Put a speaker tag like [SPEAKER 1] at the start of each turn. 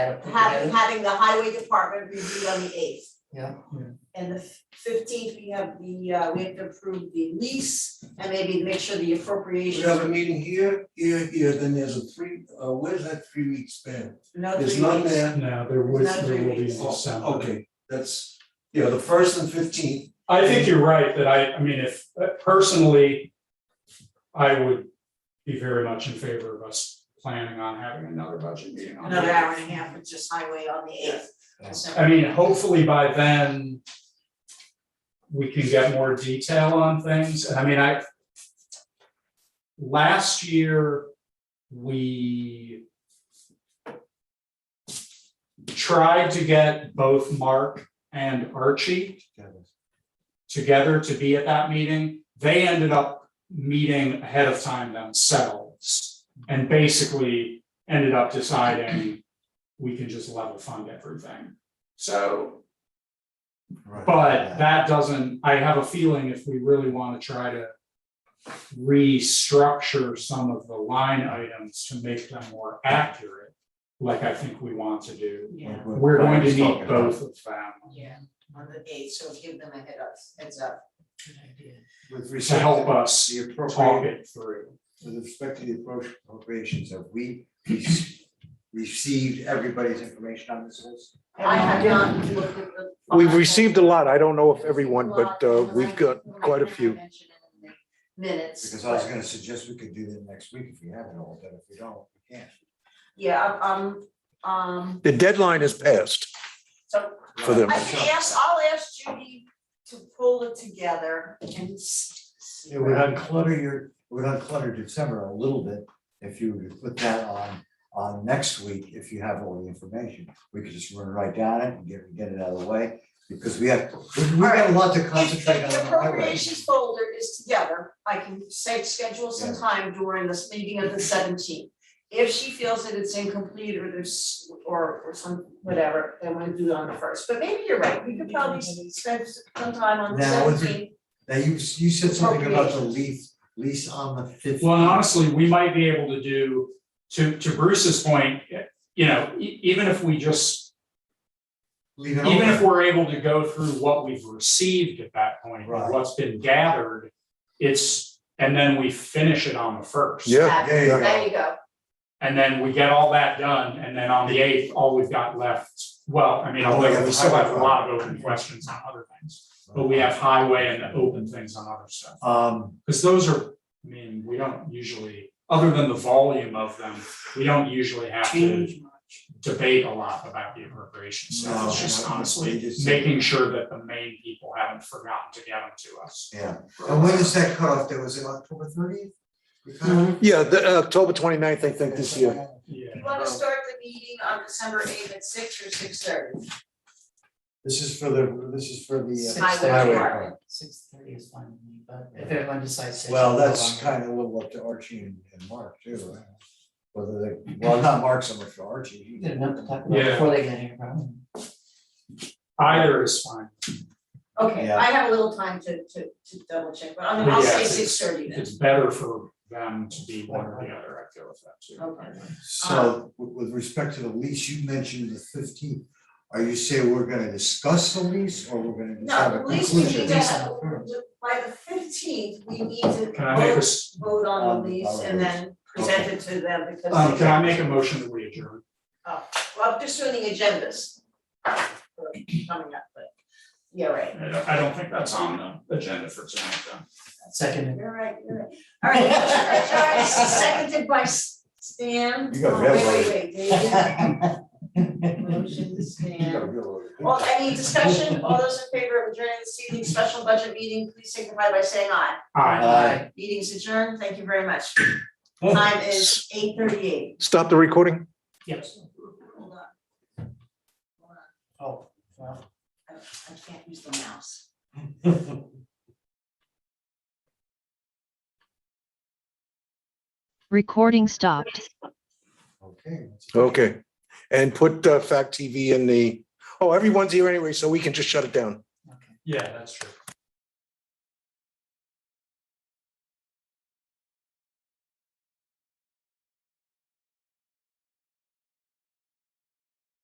[SPEAKER 1] Had it put
[SPEAKER 2] having,
[SPEAKER 1] together.
[SPEAKER 2] having the highway department review on the eighth.
[SPEAKER 1] Yeah.
[SPEAKER 2] And the fifteenth, we have the, uh, we have to approve the lease and maybe make sure the
[SPEAKER 3] We
[SPEAKER 2] appropriations.
[SPEAKER 3] have a meeting here, here, here, then there's a three, uh, where's that three week span?
[SPEAKER 2] No
[SPEAKER 3] There's
[SPEAKER 2] three
[SPEAKER 3] none
[SPEAKER 2] weeks.
[SPEAKER 3] there.
[SPEAKER 4] No, there was,
[SPEAKER 2] Not
[SPEAKER 4] there will be in
[SPEAKER 2] really.
[SPEAKER 4] December.
[SPEAKER 3] Oh, Okay, that's, yeah, the first and fifteenth,
[SPEAKER 4] I think you're right, that I, I mean, if, uh, personally, I would be very much in favor of us planning on having another budget meeting on the
[SPEAKER 2] Another hour and a half with just highway on the eighth.
[SPEAKER 3] Yeah.
[SPEAKER 4] I mean, hopefully by then we can get more detail on things. And I mean, I last year, we tried to get both Mark and Archie together to be at that meeting. They ended up meeting ahead of time themselves and basically ended up deciding we can just level fund everything. So, but that doesn't, I have a feeling if we really want to try to restructure some of the line items to make them more accurate, like I think we want to do,
[SPEAKER 2] Yeah,
[SPEAKER 4] we're going to need both of them
[SPEAKER 2] yeah, on the eighth, so give them a head up, heads up.
[SPEAKER 3] With
[SPEAKER 4] to
[SPEAKER 3] respect
[SPEAKER 4] help
[SPEAKER 3] to
[SPEAKER 4] us
[SPEAKER 3] the
[SPEAKER 4] talk
[SPEAKER 3] appropriate,
[SPEAKER 4] it through.
[SPEAKER 3] with respect to the appropriations, have we rec- received everybody's information on this list?
[SPEAKER 2] I have not looked at the.
[SPEAKER 5] We've received a lot. I don't know if everyone, but uh, we've got quite a few.
[SPEAKER 2] Minutes.
[SPEAKER 3] Because I was
[SPEAKER 2] but-
[SPEAKER 3] gonna suggest we could do that next week if we have it all, but if we don't, we can't.
[SPEAKER 2] Yeah, um, um,
[SPEAKER 5] The deadline is passed.
[SPEAKER 2] so
[SPEAKER 5] For them.
[SPEAKER 2] I can ask, I'll ask Judy to pull it together and s-
[SPEAKER 6] It would unclutter your, it would unclutter December a little bit if you were to put that on, on next week, if you have all the information. We could just run right down it and get, get it out of the way, because we have, we we got a lot to
[SPEAKER 2] If
[SPEAKER 6] concentrate
[SPEAKER 2] if
[SPEAKER 6] on
[SPEAKER 2] the
[SPEAKER 6] the highway.
[SPEAKER 2] appropriations folder is together, I can say, schedule some
[SPEAKER 6] Yeah.
[SPEAKER 2] time during this meeting of the seventeenth. If she feels that it's incomplete or there's, or, or some, whatever, then we'll do it on the first, but maybe you're right, we could probably s- spend some time on the
[SPEAKER 6] Now, with the-
[SPEAKER 2] seventeenth.
[SPEAKER 6] Now, you, you said something about the
[SPEAKER 2] Appropriations.
[SPEAKER 6] lease, lease on the fifteenth.
[SPEAKER 4] Well, and honestly, we might be able to do, to, to Bruce's point, you know, e- even if we just
[SPEAKER 6] Leave it
[SPEAKER 4] even if
[SPEAKER 6] open.
[SPEAKER 4] we're able to go through what we've received at that point,
[SPEAKER 6] Right.
[SPEAKER 4] what's been gathered, it's, and then we finish it on the first.
[SPEAKER 5] Yeah.
[SPEAKER 6] There you go.
[SPEAKER 2] There you go,
[SPEAKER 4] And then we get all that done, and then on the eighth, all we've got left, well, I mean,
[SPEAKER 6] Oh, we
[SPEAKER 4] although
[SPEAKER 6] have
[SPEAKER 4] we still have a
[SPEAKER 6] highway.
[SPEAKER 4] lot of open questions on other things. But we have highway and the open things on other stuff,
[SPEAKER 6] Um,
[SPEAKER 4] because those are, I mean, we don't usually, other than the volume of them, we don't usually have to debate a lot about the appropriation stuff. It's
[SPEAKER 6] No,
[SPEAKER 4] just
[SPEAKER 6] no, we
[SPEAKER 4] honestly
[SPEAKER 6] just-
[SPEAKER 4] making sure that the main people haven't forgotten to get them to us.
[SPEAKER 6] yeah, and when is that cutoff, there was it October thirtieth?
[SPEAKER 5] Yeah, the uh, October 29th, I think, this year.
[SPEAKER 2] you
[SPEAKER 4] Yeah.
[SPEAKER 2] wanna start the meeting on December eighth at six or six thirty?
[SPEAKER 6] This is for the, this is for the. uh,
[SPEAKER 2] Highway department.
[SPEAKER 1] Six thirty is fine with me, but if everyone decides six.
[SPEAKER 6] Well,
[SPEAKER 1] we'll go
[SPEAKER 6] that's
[SPEAKER 1] longer.
[SPEAKER 6] kind of a little up to Archie and, and Mark too. right? Whether they, well, not Mark so much, Archie.
[SPEAKER 1] We
[SPEAKER 6] he-
[SPEAKER 1] Get enough to talk about
[SPEAKER 4] Yeah.
[SPEAKER 1] before they get here, probably.
[SPEAKER 4] Either is fine.
[SPEAKER 2] Okay,
[SPEAKER 6] Yeah.
[SPEAKER 2] I have a little time to to to double check, but I mean, I'll
[SPEAKER 4] Yeah,
[SPEAKER 2] say
[SPEAKER 4] it's-
[SPEAKER 2] six thirty then.
[SPEAKER 4] It's better for them to be one or the other, I feel with that too.
[SPEAKER 2] Okay.
[SPEAKER 6] So with, with respect to the lease, you mentioned the fifteenth. Are you saying we're gonna discuss the lease or we're gonna just have
[SPEAKER 2] No,
[SPEAKER 6] a
[SPEAKER 2] at least we
[SPEAKER 6] conclusion?
[SPEAKER 2] need to have, by the fifteenth, we need to
[SPEAKER 4] Can I make a,
[SPEAKER 2] vote
[SPEAKER 4] s-
[SPEAKER 2] vote on the
[SPEAKER 6] Um,
[SPEAKER 2] lease
[SPEAKER 6] I'll
[SPEAKER 2] and then present it to them because
[SPEAKER 4] um,
[SPEAKER 2] they-
[SPEAKER 4] can I make a motion that we adjourn?
[SPEAKER 2] Well, I'm just doing the agendas. for Coming up, but, yeah, right,
[SPEAKER 4] I don't, I don't think that's on the agenda for tonight, though.
[SPEAKER 1] Second,
[SPEAKER 2] you're right, you're right. All right, Charles, seconded by Stan.
[SPEAKER 6] You got
[SPEAKER 2] Oh, Wait, wait, wait, David. Motion, Stan. Well, any discussion, all those in favor of adjourning this evening's special budget meeting, please signify by saying aye.
[SPEAKER 4] Aye.
[SPEAKER 6] Aye.
[SPEAKER 2] Meeting's adjourned, thank you very much. Time is eight thirty-eight.
[SPEAKER 5] Stop the recording.
[SPEAKER 4] Yes.
[SPEAKER 2] Hold on. Hold on,
[SPEAKER 1] oh, well.
[SPEAKER 2] I I can't use the mouse.
[SPEAKER 7] Recording stopped.
[SPEAKER 6] Okay.
[SPEAKER 5] Okay, and put uh, Fact TV in the, oh, everyone's here anyway, so we can just shut it down.
[SPEAKER 4] Yeah, that's true.